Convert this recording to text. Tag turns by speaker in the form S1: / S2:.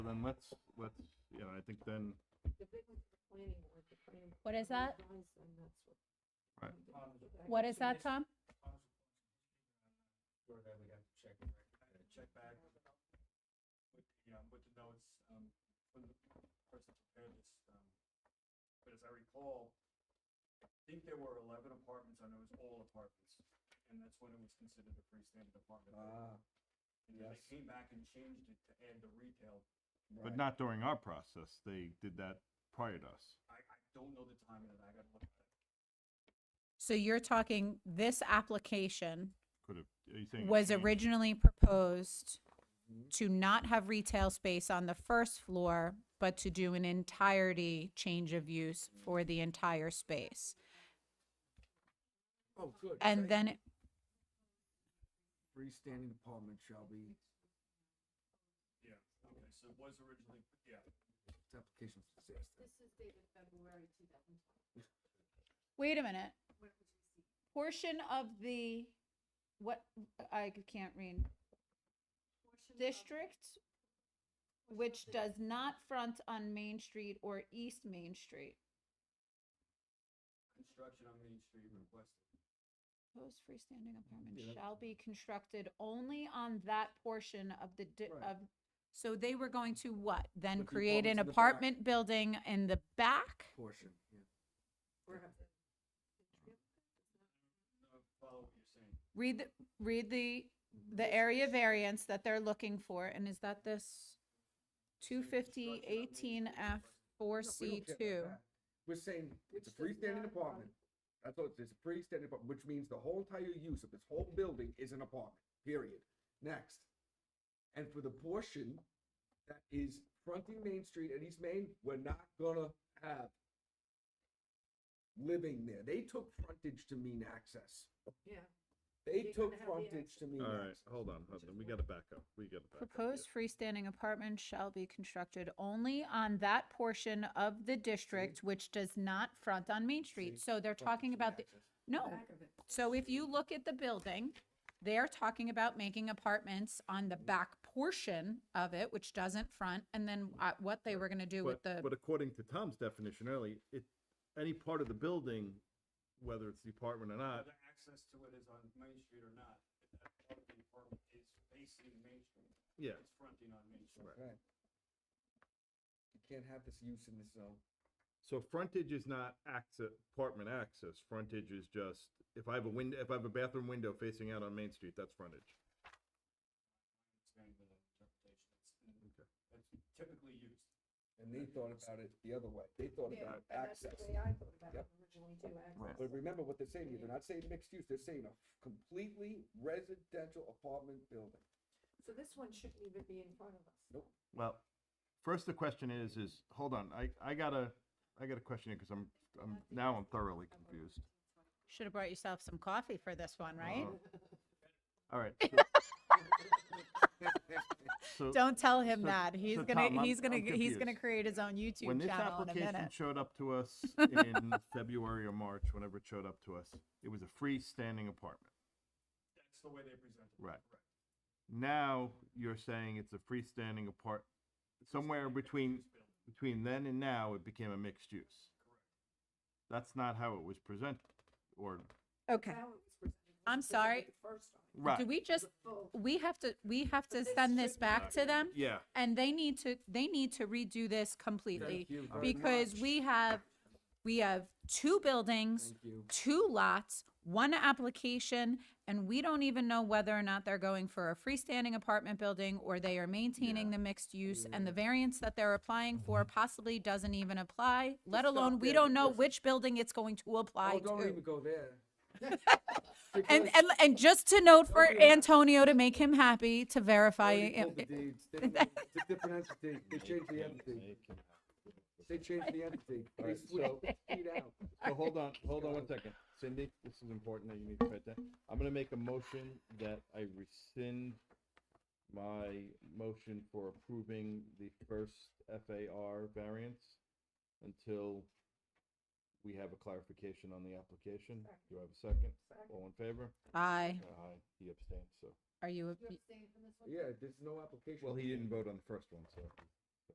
S1: then let's, let's, you know, I think then,
S2: The big one's the planning board, the planning.
S3: What is
S2: board
S3: that?
S2: advice, and that's what-
S1: Right.
S3: What is that, Tom?
S4: Where that we have to check, it, right? Uh, check back with, you know, with the notes, um, when the person prepared this, um, but as I recall, I think there were eleven apartments, and it was all apartments, and that's when it was considered a freestanding apartment.
S5: Ah,
S4: And then they
S5: yes.
S4: came back and changed it to add the retail,
S1: but
S5: right.
S1: not during our process. They did that prior to us.
S4: I, I don't know the timing of that, I gotta look at it.
S3: So you're talking this application
S1: Could have, are you saying? it
S3: was
S1: changed?
S3: originally proposed
S5: Mhm.
S3: to not have retail space on the first floor, but to do an entirety change of use for the entire space.
S5: Oh, good.
S3: And
S5: thank
S3: then it
S5: you. Freestanding apartment shall be,
S4: Yeah, okay, so it was originally, yeah,
S5: its application success.
S2: This is dated February two thousand twenty.
S3: Wait a minute. Portion of the, what, I can't read, district, which does not front on Main Street or East Main Street.
S4: construction on Main Street requested.
S3: Proposed freestanding apartment
S5: Yeah, that's-
S3: shall be constructed only on that portion of the, di-
S5: Right.
S3: of, so they were going to what? Then
S5: Put the
S3: create an
S5: apartments in the back.
S3: apartment building in the back?
S5: Portion, yeah.
S2: Or have the-
S4: Uh, Follow what you're saying.
S3: Read, the read the, the area variance that they're looking for, and is that this two fifty eighteen F four
S5: No, we
S3: C
S5: don't care about
S3: two?
S5: that. We're saying it's a
S2: Which does
S5: freestanding
S2: not
S5: apartment. That's all, it's a freestanding apartment, which means the whole entire use of this whole building is an apartment, period. Next. And for the portion that is fronting Main Street and East Main, we're not gonna have living there. They took frontage to mean access.
S2: Yeah.
S5: They
S2: You're
S5: took
S2: gonna have the
S5: frontage to mean
S1: All right,
S5: access.
S1: hold on, hold on. We gotta back up. We gotta back up. here.
S3: Proposed freestanding apartments shall be constructed only on that portion of the district which does not front on Main Street.
S5: See?
S3: So they're
S5: Frontage
S3: talking
S5: mean
S3: about the,
S5: access.
S3: no,
S2: Back of it.
S3: so if you look at the building, they're talking about making apartments on the back portion of it, which doesn't front, and then uh, what they were gonna do with
S1: But,
S3: the,
S1: but according to Tom's definition early, it, any part of the building, whether it's the apartment or not,
S4: Whether access to it is on Main Street or not, that part of the apartment is facing Main Street.
S1: yeah,
S4: It's fronting on Main Street.
S1: Right.
S5: Right. You can't have this use in this zone.
S1: So frontage is not access, apartment access, frontage is just, if I have a window, if I have a bathroom window facing out on Main Street, that's frontage.
S4: It's kind of an interpretation. It's- That's typically used.
S5: And they thought about it the other way. They thought
S2: Yeah,
S5: about
S2: and that's
S5: access.
S2: the way I thought about it
S5: Yep.
S2: originally too, access.
S5: But remember what they're saying here, they're not saying mixed use, they're saying a completely residential apartment building.
S2: So this one shouldn't even be in front of us.
S5: Nope.
S1: Well, first the question is, is, hold on, I, I gotta, I got a question here, cause I'm, I'm, now I'm thoroughly confused. Um,
S3: should have brought yourself some coffee for this one, right?
S1: Uh-huh. All right. So
S3: Don't tell him
S1: So-
S3: that.
S1: so
S3: He's gonna
S1: Tom, I'm-
S3: he's gonna
S1: I'm
S3: g- he's gonna
S1: confused.
S3: create his own
S1: when
S3: YouTube
S1: this
S3: channel in a
S1: application
S3: minute.
S1: showed up to us in February or March, whenever it showed up to us, it was a freestanding apartment.
S4: That's the way they present it.
S1: Right.
S4: correct.
S1: Now you're saying it's a freestanding apart, somewhere
S4: Freestanding
S1: between,
S4: mixed-use building,
S1: between then and now, it became a mixed use.
S4: Correct.
S1: That's not how it was presented, or,
S3: Okay.
S2: How it was presented was
S3: I'm
S2: presented
S3: sorry.
S2: the First time.
S3: Do
S1: right,
S3: we just
S2: Full.
S3: we have to we have to
S2: this
S3: send this
S2: should
S3: back
S2: not
S3: to
S2: be-
S3: them
S1: yeah.
S3: and they need to they need to redo this completely
S5: Thank you very
S3: because
S5: much.
S3: we have we have two buildings,
S5: Thank you.
S3: two lots, one application, and we don't even know whether or not they're going for a freestanding apartment building or they are maintaining the mixed use and the variance that they're applying for possibly doesn't even apply, let
S5: Just stop
S3: alone we
S5: Mm-hmm. there
S3: don't know
S5: because-
S3: which building it's going to apply
S5: Oh, don't
S3: to.
S5: even go there.
S3: And,
S5: Because
S3: and, and just to note for
S5: Don't do that.
S3: Antonio to make him happy, to verify.
S5: they
S3: it-
S5: pulled the deeds. They pulled- It's a different entity, they changed the entity, they changed the entity, they
S1: Alright,
S5: switched it out.
S1: So hold on, hold on one second. Cindy, this is important that you need to write that. I'm gonna make a motion that I rescind my motion for approving the first FAR variance until we have a clarification on the application. Do I have a second? All in favor?
S3: Aye.
S1: Aye, he abstained, so.
S3: Are you,
S2: You abstained from this one?
S5: Yeah, there's no application.
S1: Well, he didn't vote on the first one, so.